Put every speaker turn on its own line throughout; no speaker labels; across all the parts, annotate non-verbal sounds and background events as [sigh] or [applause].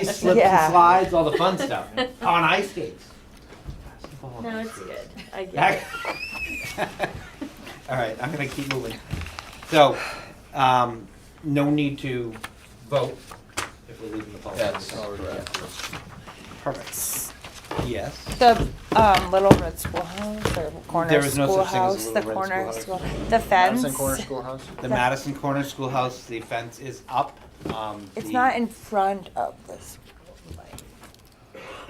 slips
Yeah.
and slides, all the
[laughs]
fun stuff on ice skates.
No, it's good. I get
Back- [laughs]
it.
All right, I'm gonna keep moving. So, um, no need to vote if we're leaving the policy.
That's
Perfect. Yes.
The um, Little Red Schoolhouse or corner
There is no such thing as a
schoolhouse,
Little
the
Red
corner
Schoolhouse.
school, the fence.
Madison Corner Schoolhouse?
The Madison Corner Schoolhouse, the fence is up. Um,
It's
the-
not in front of the school.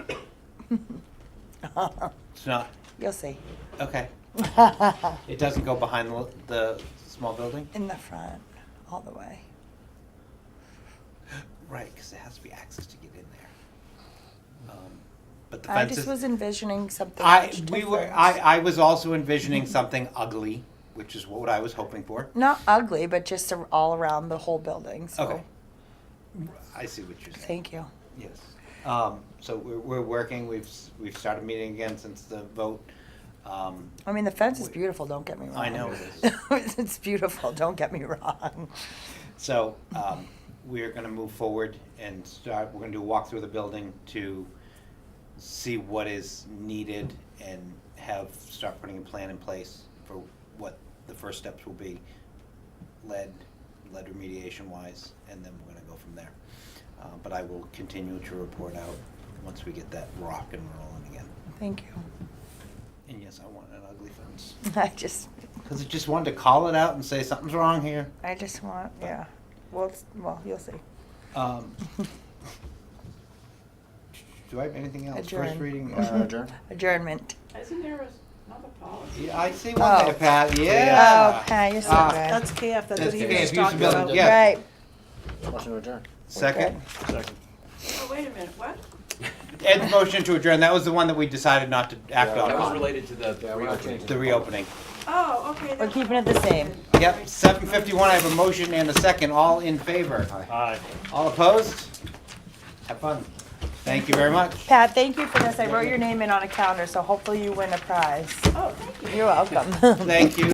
like. [laughs]
It's not,
You'll see. [laughs]
okay.
in
It doesn't go behind the, the small building?
the front, all the way.
Right, because it has to be access to get in there. Um, But the
I
fence
just was
is,
envisioning something.
I,
much
we were,
different.
I, I was also envisioning something ugly, which is what I was hoping for.
Not ugly, but just a- all around the whole building. So
Okay. I see what you're saying.
thank you.
Yes. Um, so we're, we're working, we've, s- we've started meeting again since the vote. Um,
I mean, the fence is
Wait.
beautiful. Don't get me wrong.
I know it
is. [laughs] it's beautiful. Don't get me wrong.
So um, we're going to move forward and start, we're going to do a walk through the building to see what is needed and have, start putting a plan in place for what the first steps will be, lead, lead remediation wise, and then we're going to go from there. Uh, But I will continue to report out once we get that rock and rolling again.
Thank you.
And yes, I want an ugly fence.
[laughs] I just,
Because I just wanted to call it out and say something's wrong here.
I just want, yeah. Well, it's, well,
[laughs]
you'll see.
Um, Do I have anything else? First
Adjourn. [laughs]
reading.
Motion
uh,
to adjourn?
Adjournment.
Isn't there another policy?
yeah, I see one
Oh.
there, Pat,
Oh,
yeah.
Pat, you're so
Ah.
good.
That's KF, that's
That's
what he
KF,
was
use
just
the
talking
building,
about.
yeah.
Right.
Motion to adjourn.
Second,
Oh, wait a minute, what?
Ed's motion to adjourn, that was the one that we decided not to act
Yeah,
on.
That was related to the
Yeah, we're not changing.
The reopening.
Oh, okay.
We're
that's-
keeping it the same.
Yep, seven fifty-one, I have a motion and a second, all in favor.
Aye.
All opposed? Have fun. Thank you very much.
Pat, thank you for this. I wrote your name in on a calendar, so hopefully you win a prize.
Oh, thank you.
You're welcome.
Thank you.